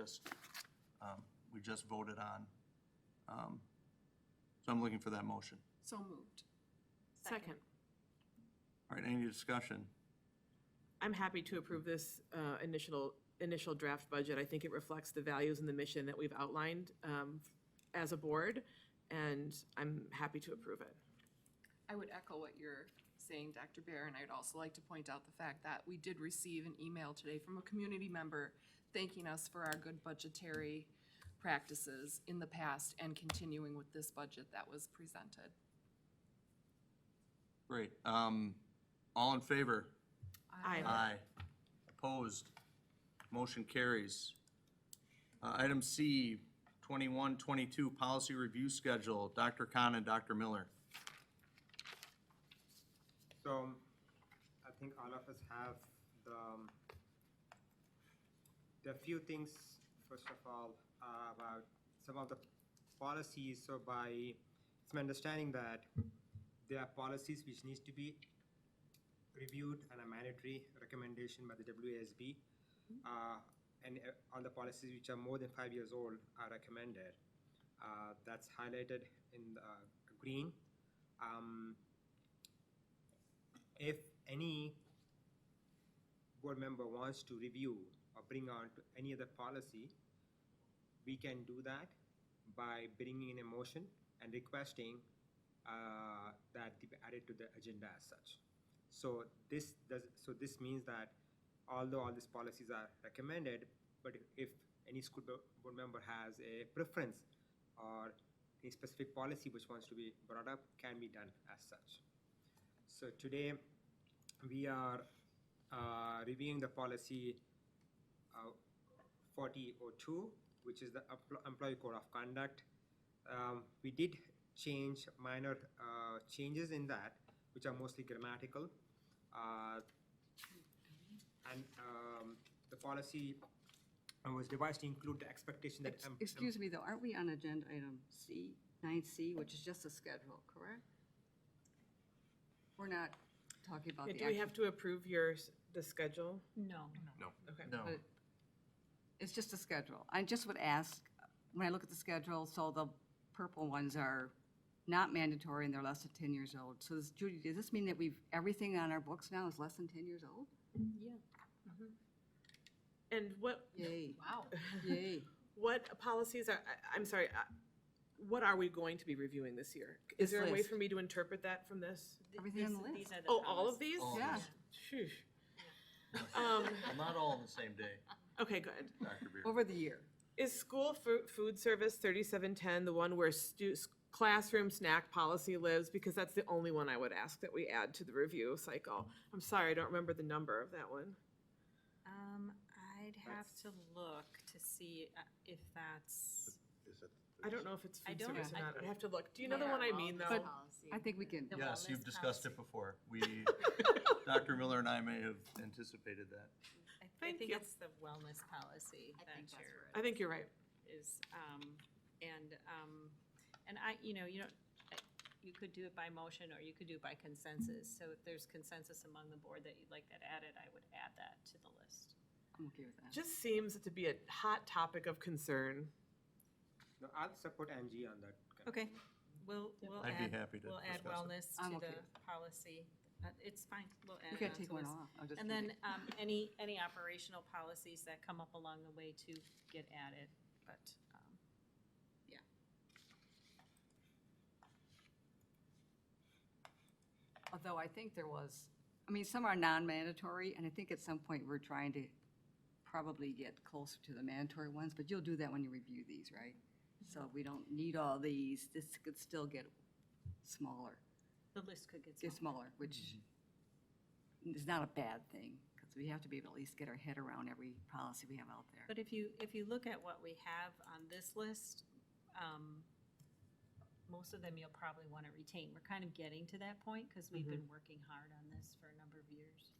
just, um, we just voted on. Um, So I'm looking for that motion. So moved. Second. All right, any discussion? I'm happy to approve this uh, initial, initial draft budget. I think it reflects the values and the mission that we've outlined um, as a board, and I'm happy to approve it. I would echo what you're saying, Dr. Bear, and I'd also like to point out the fact that we did receive an email today from a community member thanking us for our good budgetary practices in the past and continuing with this budget that was presented. Great. Um, All in favor? Aye. Aye. Opposed? Motion carries. Uh, Item C, 2122, Policy Review Schedule, Dr. Khan and Dr. Miller. So I think all of us have the, um, the few things, first of all, uh, about some of the policies. So by, it's my understanding that there are policies which needs to be reviewed and a mandatory recommendation by the WASB. Uh, and uh, all the policies which are more than five years old are recommended. Uh, that's highlighted in the uh, green. Um, if any board member wants to review or bring on to any other policy, we can do that by bringing in a motion and requesting uh, that be added to the agenda as such. So this does, so this means that although all these policies are recommended, but if any school bo- board member has a preference or a specific policy which wants to be brought up, can be done as such. So today, we are uh, reviewing the policy uh, 4002, which is the empl- Employee Code of Conduct. Um, We did change minor uh, changes in that, which are mostly grammatical. Uh, And um, the policy was devised to include the expectation that. Ex- em- em- Excuse me, though, aren't we on agenda item C, nine C, which is just a schedule, correct? We're not talking about the. Do we actual- have to approve your, s- the schedule? No. Okay. No. It's just a schedule. I just would ask, when I look at the schedule, so the purple ones are not mandatory and they're less than ten years old. So this- Judy, does this mean that we've, everything on our books now is less than ten years old? Yeah. And what, Yay, Wow. yay. what policies are, I- I'm sorry, I- what are we going to be reviewing this year? Is This there a way list. for me to interpret that from this? Everything on the These- list. these are the Oh, all of promise. these? All of Yeah. these. Phew. Um, Well, Not all on the same day, Okay, good. Dr. Beer. Over the year. Is school fu- food service thirty-seven ten the one where stu- s- classroom snack policy lives? Because that's the only one I would ask that we add to the review cycle. I'm sorry, I don't remember the number of that one. Um, I'd have to look to see uh, if that's, I don't know if it's I food don't- service or I- not, I'd have to look. Do you know the one I mean, though? But I think we can, The Yes, you've wellness discussed it policy. before. We, Dr. Miller and I may have anticipated that. I- I Thank think you. it's the wellness policy I that think that's you're- I think you're right. is, um, and, um, and I, you know, you don't, I- you could do it by motion or you could do it by consensus. So if there's consensus among the board that you'd like that added, I would add that to the list. I'm okay with that. Just seems to be a hot topic of concern. No, I'll support Angie on that. Okay, we'll, we'll I'd be add, happy to we'll add discuss it. wellness I'm to okay the policy. Uh, It's fine, we'll add We it on gotta to take one list. off. I'll just And leave it. then, um, any, any operational policies that come up along the way to get added, but, um, Although I think there was, I mean, some are non-mandatory, and I think at some point we're trying to probably get closer to the mandatory ones, but you'll do that when you review these, right? So we don't need all these, this could still get smaller, the list could get get smaller, smaller. which is not a bad thing, because we have to be able to at least get our head around every policy we have out there. But if you, if you look at what we have on this list, um, most of them you'll probably want to retain. We're kind of getting to that point because we've Mm-hmm. been working hard on this for a number of years.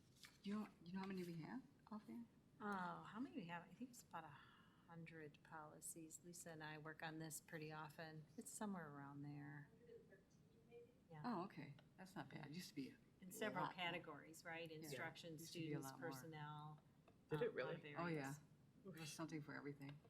You know, you know how many we have out there? Oh, how many we have? I think it's about a hundred policies. Lisa and I work on this pretty often. It's somewhere around there. Oh, okay, that's not bad, used to be. In several lot more. categories, right? Instruction, used to be a students, lot more. personnel. Did um, it a lot really? of Oh, areas. yeah, there's something for everything.